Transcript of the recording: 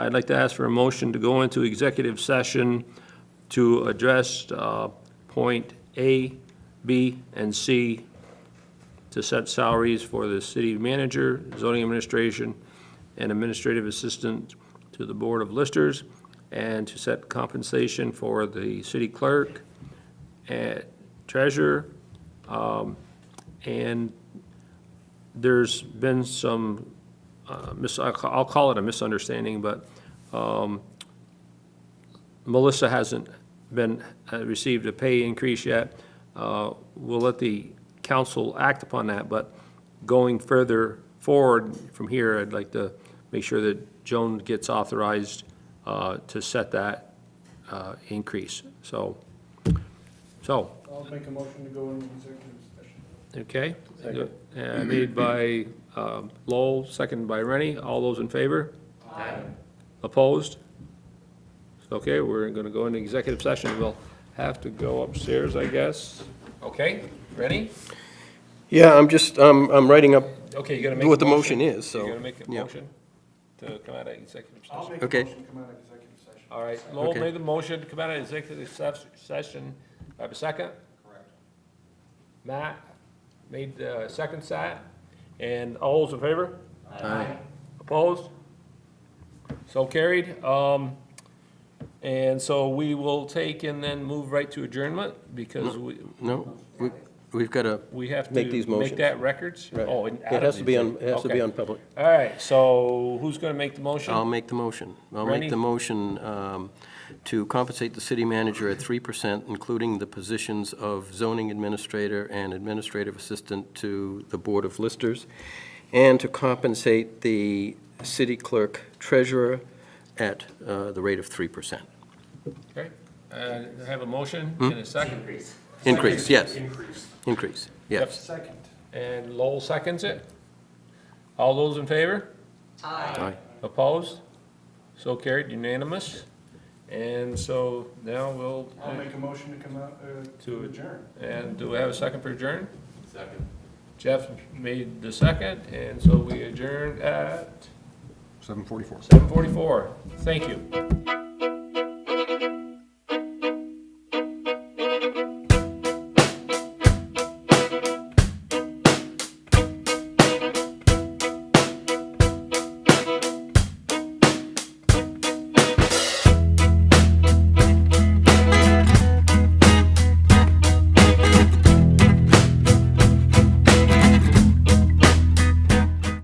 I'd like to ask for a motion to go into executive session to address uh, point A, B, and C to set salaries for the city manager, zoning administration, and administrative assistant to the Board of Listers, and to set compensation for the city clerk, and treasurer, um, and there's been some, uh, mis- I'll ca- I'll call it a misunderstanding, but um, Melissa hasn't been, uh, received a pay increase yet. Uh, We'll let the council act upon that, but going further forward from here, I'd like to make sure that Joan gets authorized uh, to set that uh, increase. So, so, I'll make a motion to go into executive session. Okay. Uh, Made by um, Lowell, seconded by Rennie. All those in favor? Aye. Opposed? Okay, we're going to go into executive session. We'll have to go upstairs, I guess. Okay, Rennie? Yeah, I'm just, um, I'm writing up, Okay, you're going to make a motion? What the motion is, so, You're going to make a yeah. motion to come out of executive I'll session? make a Okay. motion to come out of executive session. All right, Lowell Okay. made the motion to come out of executive ses- session. Do I have a second? Correct. Matt made the second side, and all those in favor? Aye. Opposed? So carried. Um, and so we will take and then move right to adjournment, because we, no, we, we've got a, we have to Make these make motions. that records. right. Oh, and It has to be on, it has to be Okay. on Um, public. All right, so who's gonna make the motion? I'll make the motion. I'll Rennie? make the motion, um, to compensate the city manager at three percent, including the positions of zoning administrator and administrative assistant to the Board of Listers, and to compensate the city clerk treasurer at, uh, the rate of three percent. Okay, uh, have a motion Hmm? and a second. Increase, yes, Increase. increase, yes. Second. And Lowell seconds it. All those in favor? Aye. Opposed? So carried, unanimous. And so now we'll, I'll make a motion to come out, uh, To- to adjourn. and do we have a second for adjourn? Second. Jeff made the second, and so we adjourned at? Seven forty-four. Seven forty-four. Thank you.